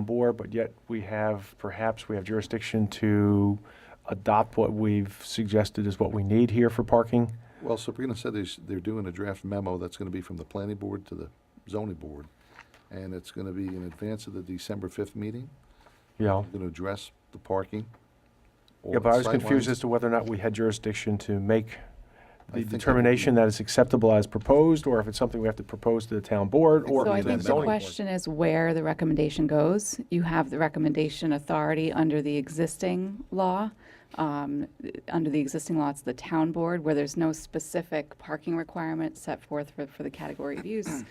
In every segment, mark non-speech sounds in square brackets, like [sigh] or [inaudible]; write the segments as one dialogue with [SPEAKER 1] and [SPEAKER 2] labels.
[SPEAKER 1] bore, but yet we have, perhaps we have jurisdiction to adopt what we've suggested is what we need here for parking.
[SPEAKER 2] Well, Sabrina said they s- they're doing a draft memo that's going to be from the planning board to the zoning board, and it's going to be in advance of the December 5th meeting.
[SPEAKER 1] You know,
[SPEAKER 2] Going to address the parking. all
[SPEAKER 1] yeah, but
[SPEAKER 2] the
[SPEAKER 1] I was confused
[SPEAKER 2] sightlines.
[SPEAKER 1] as to whether or not we had jurisdiction to make
[SPEAKER 2] I
[SPEAKER 1] the
[SPEAKER 2] think that would be-
[SPEAKER 1] determination that it's acceptable as proposed, or if it's something we have to propose to the town board, or to
[SPEAKER 2] Exactly. So
[SPEAKER 1] the
[SPEAKER 2] I
[SPEAKER 1] zoning
[SPEAKER 2] think
[SPEAKER 1] board.
[SPEAKER 2] the
[SPEAKER 3] question is where the recommendation goes. You have the recommendation authority under the existing law. Um, Under the existing law, it's the town board, where there's no specific parking requirement set forth for, for the category
[SPEAKER 1] [clears throat]
[SPEAKER 3] of use.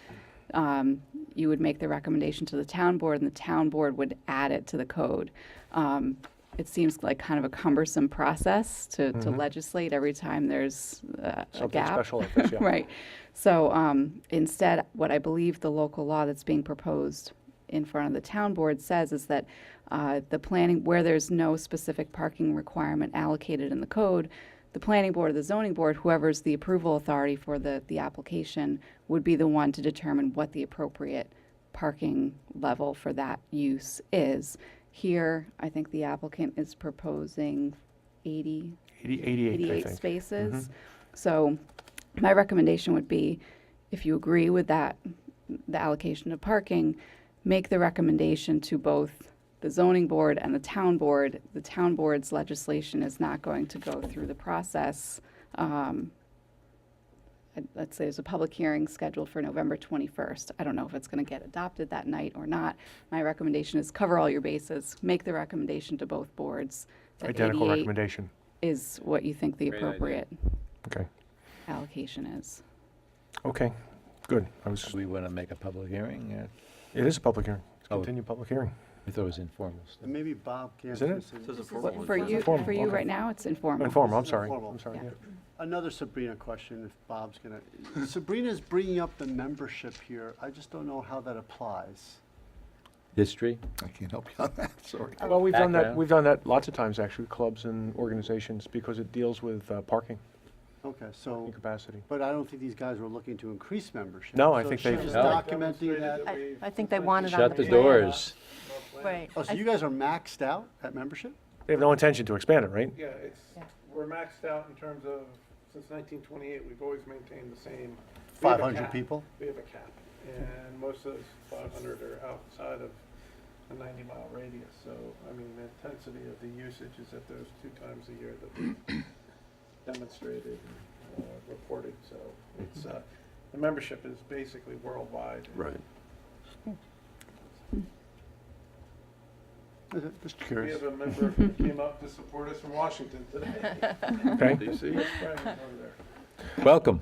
[SPEAKER 3] Um, You would make the recommendation to the town board, and the town board would add it to the code. Um, It seems like kind of a cumbersome process to, to legislate every time there's uh, a
[SPEAKER 1] Mm-hmm. Something
[SPEAKER 3] gap.
[SPEAKER 1] special like this, yeah.
[SPEAKER 3] [laughs] Right. So um, instead, what I believe the local law that's being proposed in front of the town board says is that uh, the planning, where there's no specific parking requirement allocated in the code, the planning board or the zoning board, whoever's the approval authority for the, the application, would be the one to determine what the appropriate parking level for that use is. Here, I think the applicant is proposing 80
[SPEAKER 1] Eighty- Eighty-eight, I
[SPEAKER 3] 88
[SPEAKER 1] think. Mm-hmm.
[SPEAKER 3] spaces. So my recommendation would be, if you agree with that, the allocation of parking, make the recommendation to both the zoning board and the town board. The town board's legislation is not going to go through the process. Um, I- Let's say there's a public hearing scheduled for November 21st. I don't know if it's going to get adopted that night or not. My recommendation is cover all your bases, make the recommendation to both boards. that
[SPEAKER 1] Identical
[SPEAKER 3] 88
[SPEAKER 1] recommendation.
[SPEAKER 3] is what you think the
[SPEAKER 4] Great idea.
[SPEAKER 3] appropriate
[SPEAKER 1] Okay,
[SPEAKER 3] allocation is.
[SPEAKER 1] okay, good. I was,
[SPEAKER 4] We want to make a public hearing? uh,
[SPEAKER 1] it is a public hearing. It's
[SPEAKER 4] Oh.
[SPEAKER 1] Continue public hearing.
[SPEAKER 4] I thought it was informal. stuff.
[SPEAKER 5] And maybe Bob can.
[SPEAKER 1] Isn't it?
[SPEAKER 3] But For you,
[SPEAKER 1] Informal,
[SPEAKER 3] for you
[SPEAKER 1] okay.
[SPEAKER 3] right now, it's informal.
[SPEAKER 1] Informal, I'm
[SPEAKER 5] This is
[SPEAKER 1] sorry.
[SPEAKER 5] informal.
[SPEAKER 1] I'm sorry,
[SPEAKER 3] Yeah.
[SPEAKER 1] yeah.
[SPEAKER 5] Another Sabrina question, if Bob's gonna, Sabrina's bringing up the membership here. I just don't know how that applies.
[SPEAKER 4] History?
[SPEAKER 2] I can't help you on that, sorry.
[SPEAKER 1] Well, we've done that,
[SPEAKER 4] Background.
[SPEAKER 1] we've done that lots of times, actually, clubs and organizations, because it deals with uh, parking
[SPEAKER 5] Okay, so,
[SPEAKER 1] capacity.
[SPEAKER 5] but I don't think these guys were looking to increase membership.
[SPEAKER 1] No, I think
[SPEAKER 5] So
[SPEAKER 1] they-
[SPEAKER 5] she's just
[SPEAKER 4] No.
[SPEAKER 5] documenting that.
[SPEAKER 6] I, I think they wanted on the.
[SPEAKER 4] Shut the
[SPEAKER 6] plan.
[SPEAKER 4] doors.
[SPEAKER 6] Right.
[SPEAKER 5] Oh, so you guys are maxed out at membership?
[SPEAKER 1] They have no intention to expand it, right?
[SPEAKER 7] Yeah, it's, we're maxed out in terms of, since nineteen twenty-eight, we've always maintained the same. we have
[SPEAKER 5] Five
[SPEAKER 7] a
[SPEAKER 5] hundred
[SPEAKER 7] cap.
[SPEAKER 5] people?
[SPEAKER 7] We have a cap, and most of those five hundred are outside of a ninety-mile radius, so, I mean, the intensity of the usage is at those two times a year
[SPEAKER 5] [coughs]
[SPEAKER 7] that we demonstrated, and uh, reported, so it's, uh, the membership is basically worldwide.
[SPEAKER 2] Right.
[SPEAKER 5] Uh, Just
[SPEAKER 7] We
[SPEAKER 5] curious.
[SPEAKER 7] have a member who came up to support us from Washington today.
[SPEAKER 1] Okay.
[SPEAKER 7] DC.
[SPEAKER 4] Welcome.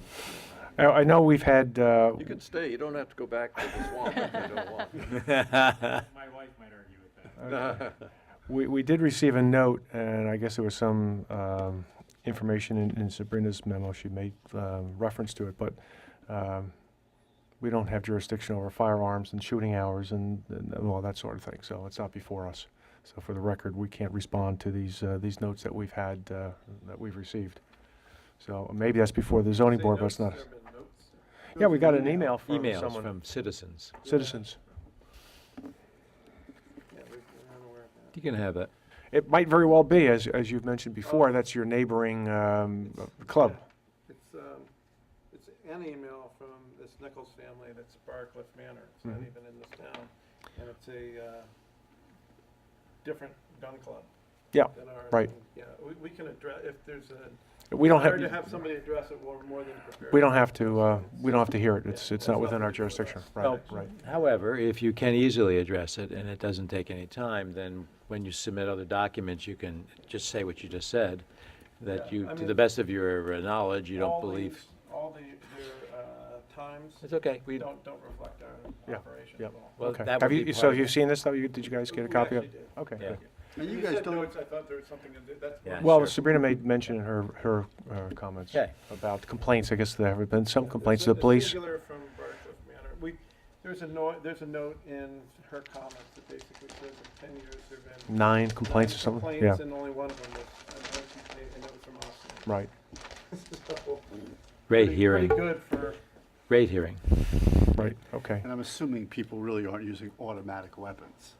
[SPEAKER 1] I, I know we've had, uh,
[SPEAKER 8] You can stay, you don't have to go back to the swamp if you don't want.
[SPEAKER 1] we, we did receive a note, and I guess there was some um, information in, in Sabrina's memo, she made um, reference to it, but um, we don't have jurisdiction over firearms and shooting hours and, and all that sort of thing, so it's not before us. So for the record, we can't respond to these, uh, these notes that we've had, uh, that we've received. So maybe that's before the zoning board, but it's not. Yeah, we got an email from
[SPEAKER 4] Emails
[SPEAKER 1] someone,
[SPEAKER 4] from citizens.
[SPEAKER 1] citizens.
[SPEAKER 4] You can have that.
[SPEAKER 1] It might very well be, as, as you've mentioned before, that's your neighboring um, club.
[SPEAKER 7] It's, um, it's an email from this Nichols family that's Barcliff Manor. It's not
[SPEAKER 1] Mhm.
[SPEAKER 7] even in this town. And it's a, uh, different gun club
[SPEAKER 1] Yeah,
[SPEAKER 7] than ours.
[SPEAKER 1] Right.
[SPEAKER 7] and, Yeah, we, we can address, if there's a,
[SPEAKER 1] we don't
[SPEAKER 7] hard to have
[SPEAKER 1] have,
[SPEAKER 7] somebody address it, we're more than prepared.
[SPEAKER 1] we don't have to, uh, we don't have to hear it. It's, it's not within our jurisdiction. Right,
[SPEAKER 4] Well-
[SPEAKER 1] right.
[SPEAKER 4] However, if you can easily address it and it doesn't take any time, then when you submit other documents, you can just say what you just said, that
[SPEAKER 7] Yeah,
[SPEAKER 4] you,
[SPEAKER 7] I
[SPEAKER 4] to the
[SPEAKER 7] mean-
[SPEAKER 4] best of your uh, knowledge, you don't
[SPEAKER 7] All
[SPEAKER 4] believe.
[SPEAKER 7] these- All the, their, uh, times
[SPEAKER 4] It's okay. We,
[SPEAKER 7] don't, don't reflect our
[SPEAKER 1] Yeah,
[SPEAKER 7] operation
[SPEAKER 1] yeah.
[SPEAKER 7] at all.
[SPEAKER 4] well,
[SPEAKER 1] Okay.
[SPEAKER 4] that
[SPEAKER 1] Have
[SPEAKER 4] would
[SPEAKER 1] you,
[SPEAKER 4] be
[SPEAKER 1] so
[SPEAKER 4] part of
[SPEAKER 1] you've
[SPEAKER 4] it.
[SPEAKER 1] seen this, though? You- Did you guys get a
[SPEAKER 7] We
[SPEAKER 1] copy of
[SPEAKER 7] actually did.
[SPEAKER 1] Okay.
[SPEAKER 4] Yeah.
[SPEAKER 1] good.
[SPEAKER 5] And you
[SPEAKER 7] You
[SPEAKER 5] guys
[SPEAKER 7] said
[SPEAKER 5] don't,
[SPEAKER 7] notes, I thought there was something in there, that's.
[SPEAKER 4] Yeah.
[SPEAKER 1] Well,
[SPEAKER 4] Sure.
[SPEAKER 1] Sabrina made mention in her, her uh, comments
[SPEAKER 4] Okay.
[SPEAKER 1] about complaints. I guess there have been some
[SPEAKER 7] Yeah,
[SPEAKER 1] complaints to
[SPEAKER 7] there's
[SPEAKER 1] the
[SPEAKER 7] a- a
[SPEAKER 1] police.
[SPEAKER 7] singular from Barcliff Manor. We, there's a note, there's a note in her comments that basically says in ten years there've been.
[SPEAKER 1] Nine complaints or
[SPEAKER 7] nine
[SPEAKER 1] something? Yeah,
[SPEAKER 7] Complaints and only one of them was, an OCP, and it was from Austin.
[SPEAKER 1] right.
[SPEAKER 7] So,
[SPEAKER 4] Great
[SPEAKER 7] pretty-
[SPEAKER 4] hearing,
[SPEAKER 7] Pretty good for,
[SPEAKER 4] great hearing.
[SPEAKER 1] Right, okay.
[SPEAKER 5] and I'm assuming people really aren't using automatic weapons.